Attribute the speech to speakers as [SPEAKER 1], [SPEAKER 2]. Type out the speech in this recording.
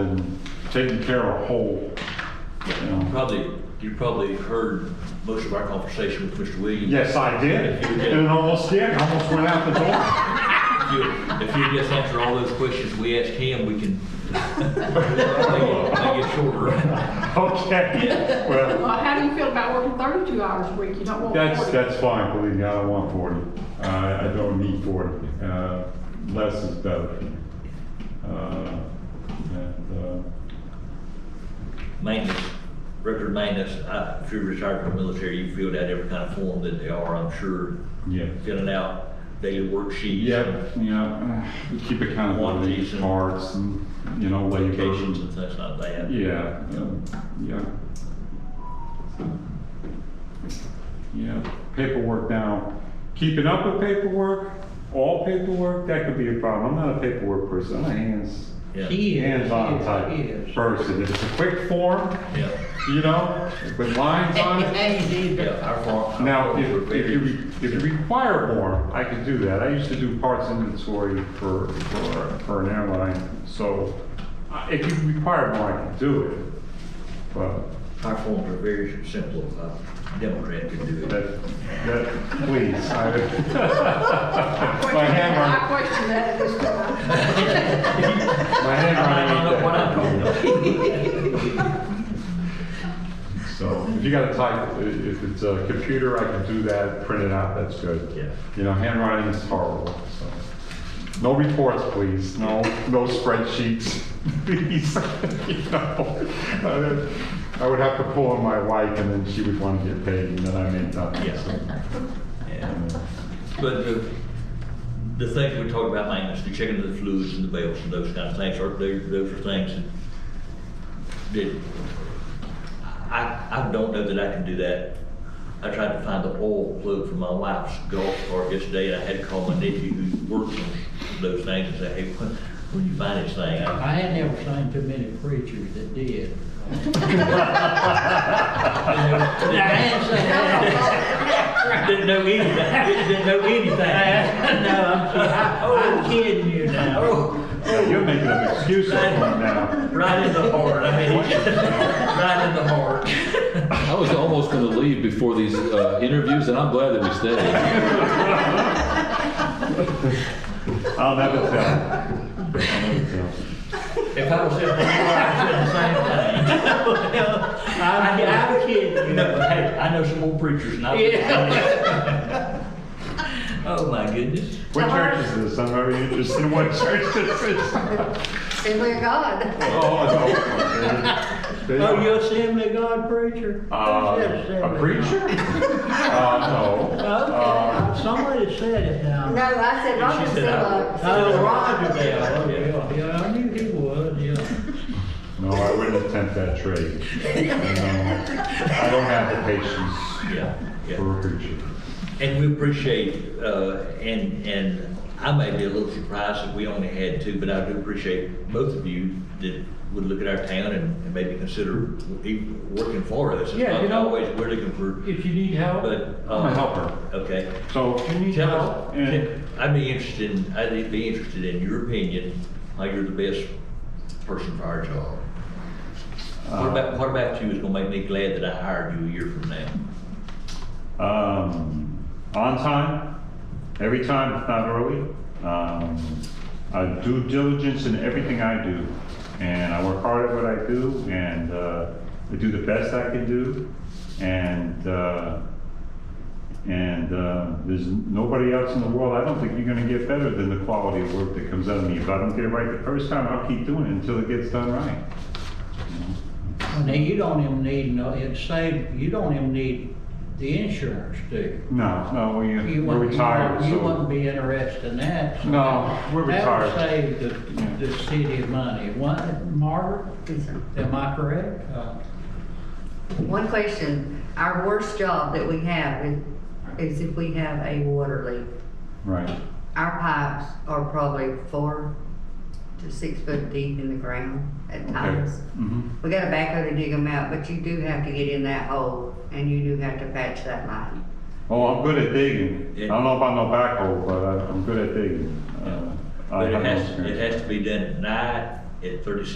[SPEAKER 1] and taking care of whole, you know.
[SPEAKER 2] Probably, you probably heard most of our conversation with Mr. Williams.
[SPEAKER 1] Yes, I did,
[SPEAKER 2] You did.
[SPEAKER 1] and almost did, almost went out the door.
[SPEAKER 2] If you, if you just answer all those questions we asked him, we can make it make it shorter.
[SPEAKER 1] Okay, well,
[SPEAKER 3] Well, how do you feel about working 32 hours a week? You don't want
[SPEAKER 1] that's,
[SPEAKER 3] 40.
[SPEAKER 1] that's fine, believe me, I don't want forty. I, I don't need forty, uh, less is better. Uh, and, uh,
[SPEAKER 2] Maintenance, record maintenance, I- if you're retired from the military, you filled out every kind of form that they are, I'm sure.
[SPEAKER 1] Yeah.
[SPEAKER 2] Filling out daily worksheets.
[SPEAKER 1] Yeah, yeah, we keep account of
[SPEAKER 2] Quantities
[SPEAKER 1] the
[SPEAKER 2] and-
[SPEAKER 1] parts and, you know,
[SPEAKER 2] Vacations
[SPEAKER 1] labor.
[SPEAKER 2] and things like that.
[SPEAKER 1] Yeah, um, yeah. Yeah, paperwork now, keeping up with paperwork, all paperwork, that could be a problem. I'm not a paperwork person, I'm a hands,
[SPEAKER 2] Yeah.
[SPEAKER 4] He is.
[SPEAKER 1] hands-on
[SPEAKER 4] he
[SPEAKER 1] type
[SPEAKER 4] is.
[SPEAKER 1] person. It's a quick form,
[SPEAKER 2] Yeah,
[SPEAKER 1] you know, with lines on it.
[SPEAKER 2] yeah, our farm.
[SPEAKER 1] Now, if, if you, if you require more, I could do that. I used to do parts inventory for, for, for an airline, so uh, if you require more, I can do it. But
[SPEAKER 2] Our forms are very simple, a Democrat can do it.
[SPEAKER 1] that, that, please, I,
[SPEAKER 3] I
[SPEAKER 1] my
[SPEAKER 3] question- I
[SPEAKER 1] hammer,
[SPEAKER 3] question that at this time.
[SPEAKER 1] my hammer. ain't that. So if you gotta type, i- if it's a computer, I can do that, print it out, that's good.
[SPEAKER 2] Yeah.
[SPEAKER 1] You know, handwriting is horrible, so. No reports, please, no, no spreadsheets, please. You know, uh, I would have to pull on my wife and then she would want to get paid and then I made nothing.
[SPEAKER 2] Yeah.
[SPEAKER 1] so,
[SPEAKER 2] Yeah.
[SPEAKER 1] uh,
[SPEAKER 2] But the, the things we talk about maintenance, the checking of the fluids and the belts and those kind of things, are, they- those are things that, that, I, I don't know that I can do that. I tried to find the oil plug for my wife's golf cart yesterday, and I had to call my nephew who works on those things and say, hey, when, when you find this thing, I,
[SPEAKER 4] I had never seen too many preachers that did. But I ain't saying that.
[SPEAKER 2] Didn't know anything. Didn't know anything.
[SPEAKER 4] No, I'm kidding. I- I'm kidding you now.
[SPEAKER 2] Oh,
[SPEAKER 1] You're making an excuse for me now.
[SPEAKER 2] right in the heart. I mean, right in the heart.
[SPEAKER 5] I was almost going to leave before these uh, interviews, and I'm glad that we stayed.
[SPEAKER 1] I'll never tell. I'll never tell.
[SPEAKER 2] If I was in the heart, I'd do the same thing.
[SPEAKER 4] I'm, I'm kidding you.
[SPEAKER 2] No, but hey, I know some more preachers. And I oh my goodness.
[SPEAKER 1] What church is this? I'm very interested in what church this is.
[SPEAKER 6] Assembly of God.
[SPEAKER 1] Oh, no. They-
[SPEAKER 4] Oh, you Assembly of God preacher?
[SPEAKER 1] Uh,
[SPEAKER 4] Who said Assembly
[SPEAKER 1] a
[SPEAKER 4] of
[SPEAKER 1] preacher? Uh, no.
[SPEAKER 4] God? Okay, somebody said it now.
[SPEAKER 6] No, I said Roger
[SPEAKER 2] She said,
[SPEAKER 6] Assembly.
[SPEAKER 4] Oh, Roger Bell, oh, yeah, yeah, I knew he was, yeah.
[SPEAKER 1] No, I wouldn't attempt that trade. No. I don't have the patience
[SPEAKER 2] Yeah, yeah.
[SPEAKER 1] for a preacher.
[SPEAKER 2] And we appreciate, uh, and, and I may be a little surprised that we only had two, but I do appreciate both of you that would look at our town and, and maybe consider even working for us. It's
[SPEAKER 4] Yeah,
[SPEAKER 2] not
[SPEAKER 4] you know-
[SPEAKER 2] Always, we're looking for,
[SPEAKER 4] If you need help.
[SPEAKER 2] but.
[SPEAKER 1] I'm
[SPEAKER 2] um,
[SPEAKER 1] a helper.
[SPEAKER 2] Okay.
[SPEAKER 1] So if you need
[SPEAKER 2] Tell us,
[SPEAKER 1] help, and
[SPEAKER 2] I'd be interested, in- I'd be interested in your opinion, how you're the best person for our job. What about, what about you is gonna make me glad that I hired you a year from now?
[SPEAKER 1] um, on time, every time, if not early. Um, I do diligence in everything I do, and I work hard at what I do, and uh, I do the best I can do, and uh, and uh, there's nobody else in the world. I don't think you're going to get better than the quality of work that comes out of me. If I don't get it right the first time, I'll keep doing it until it gets done right.
[SPEAKER 4] Now, you don't even need, no, it's saved, you don't even need the insurance, do
[SPEAKER 1] No, no, we,
[SPEAKER 4] you? You
[SPEAKER 1] we're
[SPEAKER 4] wouldn't- you
[SPEAKER 1] retired,
[SPEAKER 4] wouldn't-
[SPEAKER 1] so
[SPEAKER 4] You wouldn't be interested in that. so
[SPEAKER 1] no, we're retired.
[SPEAKER 4] That would save the, the city money. One, Margaret, am I correct? Uh,
[SPEAKER 6] One question, our worst job that we have is, is if we have a water leak.
[SPEAKER 1] Right.
[SPEAKER 6] Our pipes are probably four to six foot deep in the ground at times.
[SPEAKER 1] Mm-hmm.
[SPEAKER 6] We got a backhoe to dig them out, but you do have to get in that hole and you do have to patch that line.
[SPEAKER 1] Oh, I'm good at digging. I don't know about no backhoe, but I- I'm good at digging. Uh, I
[SPEAKER 2] But it
[SPEAKER 1] have no
[SPEAKER 2] has,
[SPEAKER 1] experience.
[SPEAKER 2] it has to be done at night at thirty-six